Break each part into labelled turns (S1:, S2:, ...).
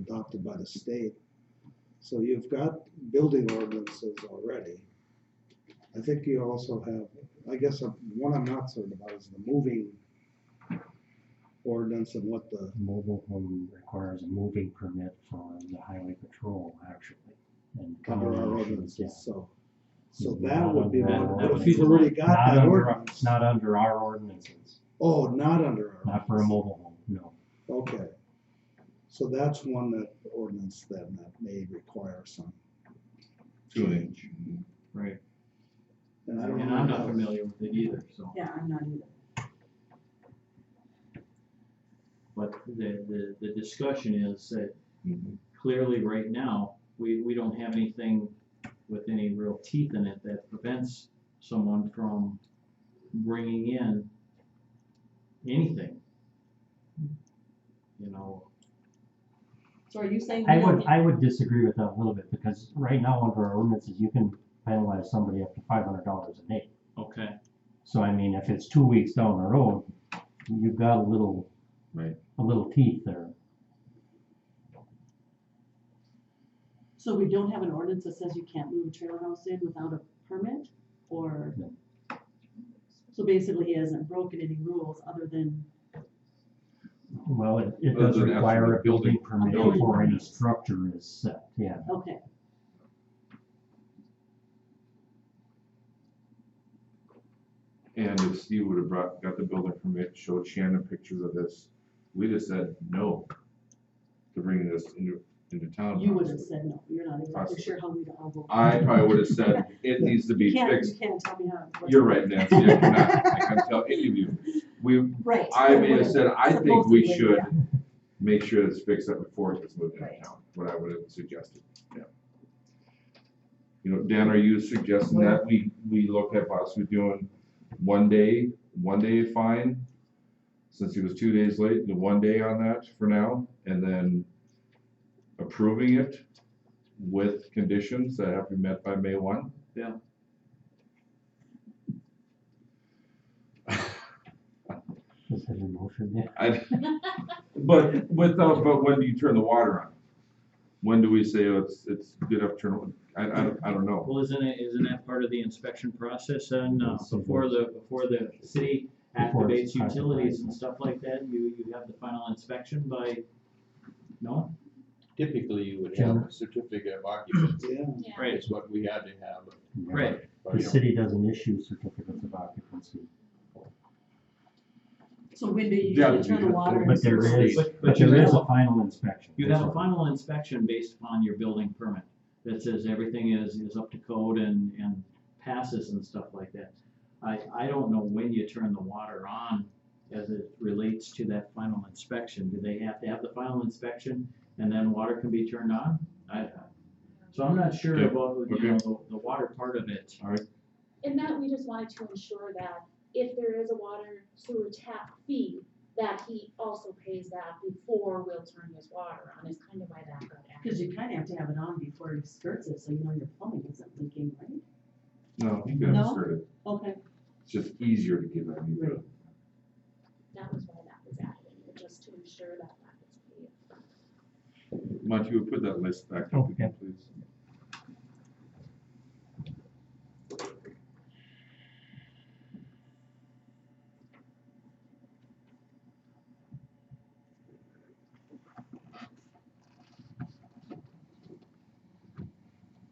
S1: adopted by the state. So you've got building ordinances already. I think you also have, I guess, uh, one I'm not certain about is the moving ordinance and what the,
S2: Mobile home requires a moving permit for the highway patrol, actually. and
S1: cover
S2: county
S1: our
S2: issues, yeah.
S1: ordinances, so. So
S2: Yeah,
S1: that
S2: not
S1: would be,
S2: under
S1: one.
S2: our
S1: but if
S2: ordinance.
S1: you've already got
S2: Not
S1: that
S2: under our-
S1: ordinance,
S2: Not under our ordinances,
S1: oh, not under our.
S2: not for a
S1: ordinance.
S2: mobile home, no.
S1: Okay. So that's one that ordinance then that may require some
S3: Two inch.
S4: Right,
S1: And I don't
S4: and
S1: know.
S4: I'm not
S1: how-
S4: familiar with it either, so,
S5: Yeah, I'm not either.
S4: but the, the, the discussion is that
S3: Mm-hmm.
S4: clearly right now, we, we don't have anything with any real teeth in it that prevents someone from bringing in anything. You know,
S5: So are you saying?
S2: I
S5: we
S2: would,
S5: don't-
S2: I would disagree with that a little bit, because right now, under our ordinances, you can penalize somebody up to five hundred dollars a day.
S4: okay,
S2: So I mean, if it's two weeks down the road, you've got a little.
S3: Right.
S2: A little teeth there.
S5: So we don't have an ordinance that says you can't move a trailer house in without a permit, or?
S2: No.
S5: So basically, he hasn't broken any rules other than,
S2: Well, it, it
S3: Other
S2: does
S3: than
S2: require
S3: actually
S2: a building permit
S5: building
S2: before any
S5: permit.
S2: structure is set, yeah.
S5: okay,
S3: And if Steve would have brought, got the building permit, showed Shannon pictures of this, we'd have said no to bringing this into, into town.
S5: you would have said, no, you're not exactly
S3: Possibly.
S5: sure how we'd all vote.
S3: I probably would have said, it needs to
S5: You
S3: be
S5: can't, you
S3: fixed.
S5: can't tell me how. what-
S3: You're right, Nancy, I cannot, I can't tell any of you. We,
S5: Right.
S3: I may have said, I think we
S5: Supposedly,
S3: should
S5: yeah.
S3: make sure it's fixed up before it gets moved into
S5: Right.
S3: town, what I would have suggested, yeah. You know, Dan, are you suggesting that we, we look at possibly doing one day, one day fine? Since it was two days late, the one day on that for now, and then approving it with conditions that have to be met by May one?
S4: Yeah.
S2: Is that a motion? Yeah.
S3: I, but without, but when do you turn the water on? When do we say oh, it's, it's good enough to turn, I, I, don't- I don't know.
S4: well, isn't it, isn't that part of the inspection process and, uh,
S2: Yes, it
S4: before the, before the city
S2: Before
S4: activates
S2: it's
S4: utilities and
S2: classified.
S4: stuff like that, you, you have the final inspection by, no?
S6: Typically, you would have a certificate of occupancy,
S1: Yeah,
S4: Right,
S6: is what we had to have.
S4: Right,
S6: but,
S2: The
S6: you know,
S2: city doesn't issue certificates of occupancy,
S5: So when do you
S3: Yeah,
S5: usually turn the
S3: you-
S5: water?
S2: but there
S5: into-
S2: is,
S4: But-
S2: but
S4: but you
S2: there is
S4: have-
S2: a final inspection.
S4: You have a
S2: Sorry.
S4: final inspection based upon your building permit that says everything is, is up to code and, and passes and stuff like that. I, I don't know when you turn the water on as it relates to that final inspection. Do they have to have the final inspection and then water can be turned on? I, I- so I'm not sure
S3: Yeah,
S4: about, you
S3: okay.
S4: know, the, the water part of it.
S7: And that we just wanted to ensure that if there is a water sewer tap fee, that he also pays that before we'll turn his water on, is kind of why that got added.
S5: Cause you kinda have to have it on before he skirts it, so you know your plumbing isn't leaking, right?
S3: No, you can
S5: No?
S3: insert it,
S5: Okay,
S3: it's just easier to give that, you know.
S7: That was why that was added, in there, just to ensure that that is paid.
S3: Monty, would put that list back up again, please?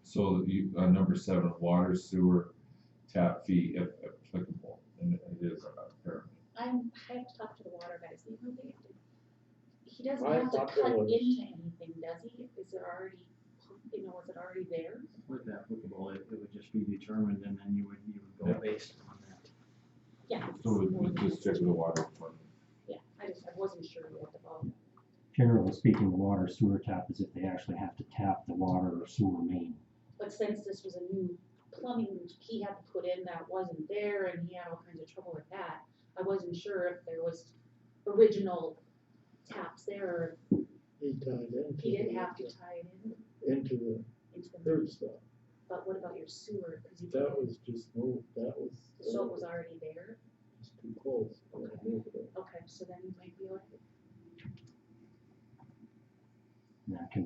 S3: So you, uh, number seven, water sewer tap fee if applicable, and it is uh, apparently.
S7: I'm, I have to talk to the water guys, they know they have to. He doesn't
S6: I
S7: have to
S6: thought there
S7: cut
S6: was-
S7: into anything, does he? Is it already, you know, is it already there?
S4: With that applicable, it, it would just be determined and then you would, you would
S3: Yeah.
S4: go based on that.
S7: Yeah.
S3: So we- we just check with the water department.
S7: Yeah, I just, I wasn't sure what the, ball-
S2: Generally speaking, the water sewer tap is if they actually have to tap the water or sewer main.
S7: But since this was a new plumbing he had to put in that wasn't there and he had all kinds of trouble with that, I wasn't sure if there was original taps there or
S8: He tied into.
S7: if he didn't
S8: the-
S7: have to tie it in
S8: Into
S7: into
S8: the
S7: the,
S8: third stuff.
S7: but what about your sewer? Cause you,
S8: That was just moved, that was.
S7: so it was already there?
S8: It's too close.
S7: Okay, so then you might be like,
S2: That can